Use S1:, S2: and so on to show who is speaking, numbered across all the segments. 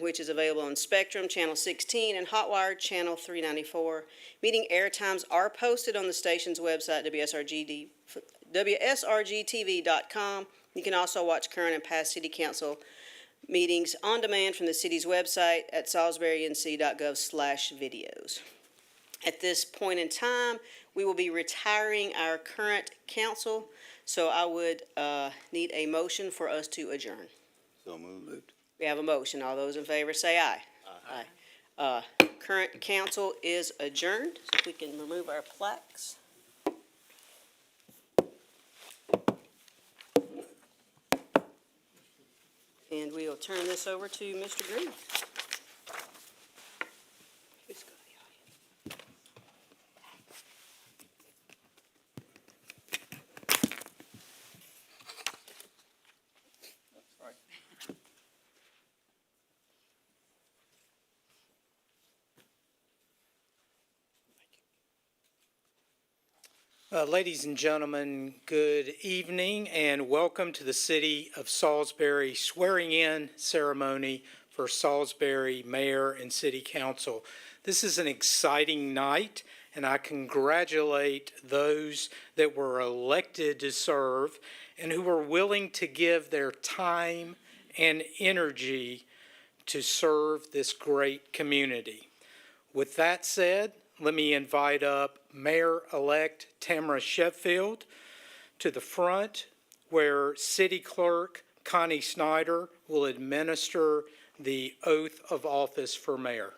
S1: which is available on Spectrum Channel 16 and Hotwire Channel 394. Meeting air times are posted on the station's website, WSRGD WSRGTV.com. You can also watch current and past city council meetings on demand from the city's website at salisburync.gov/videos. At this point in time, we will be retiring our current council, so I would uh, need a motion for us to adjourn.
S2: So moved.
S1: We have a motion. All those in favor say aye. Aye. Uh, Current council is adjourned, so if we can remove our plaques. And we will turn this over to Mr. Green. Who's got the audience?
S3: Uh, Ladies and gentlemen, good evening and welcome to the City of Salisbury swearing-in ceremony for Salisbury Mayor and City Council. This is an exciting night, and I congratulate those that were elected to serve and who were willing to give their time and energy to serve this great community. With that said, let me invite up Mayor-elect Tamara Sheffield to the front, where City Clerk Connie Snyder will administer the oath of office for mayor.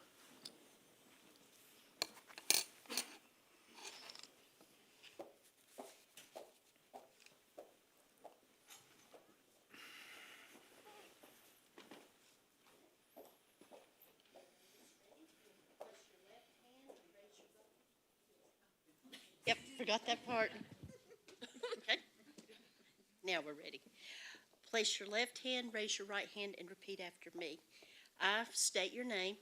S4: Yep, forgot that part. Okay. Now we're ready. Place your left hand, raise your right hand, and repeat after me. I state your name,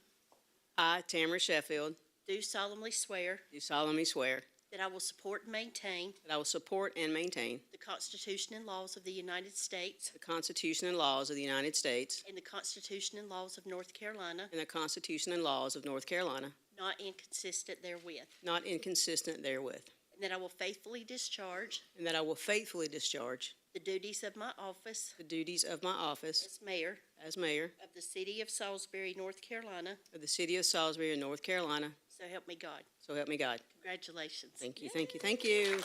S1: I, Tamara Sheffield,
S4: do solemnly swear
S1: do solemnly swear
S4: that I will support and maintain
S1: that I will support and maintain
S4: the Constitution and laws of the United States
S1: the Constitution and laws of the United States
S4: and the Constitution and laws of North Carolina,
S1: and the Constitution and laws of North Carolina,
S4: not inconsistent therewith,
S1: not inconsistent therewith,
S4: and that I will faithfully discharge
S1: and that I will faithfully discharge
S4: the duties of my office
S1: the duties of my office
S4: as mayor
S1: as mayor
S4: of the city of Salisbury, North Carolina,
S1: of the city of Salisbury in North Carolina.
S4: so help me God.
S1: So help me God.
S4: Congratulations.
S1: Thank you, thank you, thank you.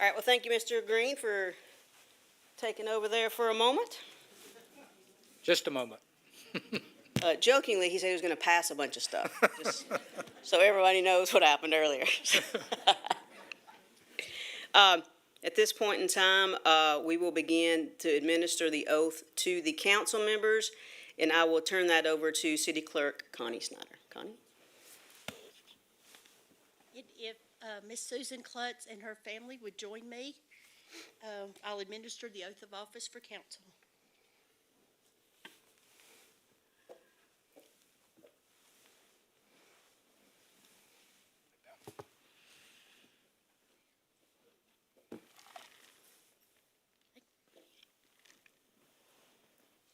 S1: All right, well, thank you, Mr. Green, for taking over there for a moment.
S3: Just a moment.
S1: Uh, jokingly, he said he was going to pass a bunch of stuff, just so everybody knows what happened earlier. um, at this point in time, uh, we will begin to administer the oath to the council members, and I will turn that over to City Clerk Connie Snyder. Connie?
S4: And If uh, Miss Susan Klutz and her family would join me, um, I'll administer the oath of office for council.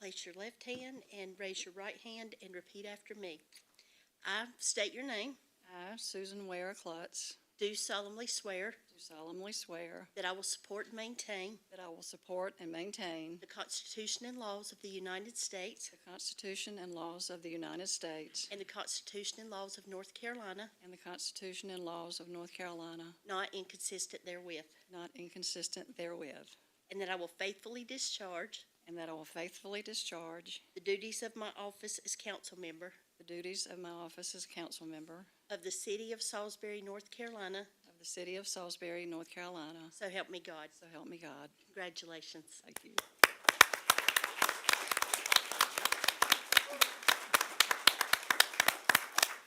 S4: Place your left hand and raise your right hand and repeat after me. I state your name,
S5: I, Susan Ware Klutz,
S4: do solemnly swear
S5: do solemnly swear
S4: That I will support and maintain
S5: that I will support and maintain
S4: the Constitution and laws of the United States
S5: the Constitution and laws of the United States
S4: and the Constitution and laws of North Carolina,
S5: and the Constitution and laws of North Carolina,
S4: not inconsistent therewith,
S5: not inconsistent therewith,
S4: and that I will faithfully discharge
S5: and that I will faithfully discharge
S4: the duties of my office as council member
S5: the duties of my office as council member
S4: of the city of Salisbury, North Carolina,
S5: of the city of Salisbury, North Carolina.
S4: so help me God.
S5: So help me God.
S4: Congratulations.
S5: Thank you.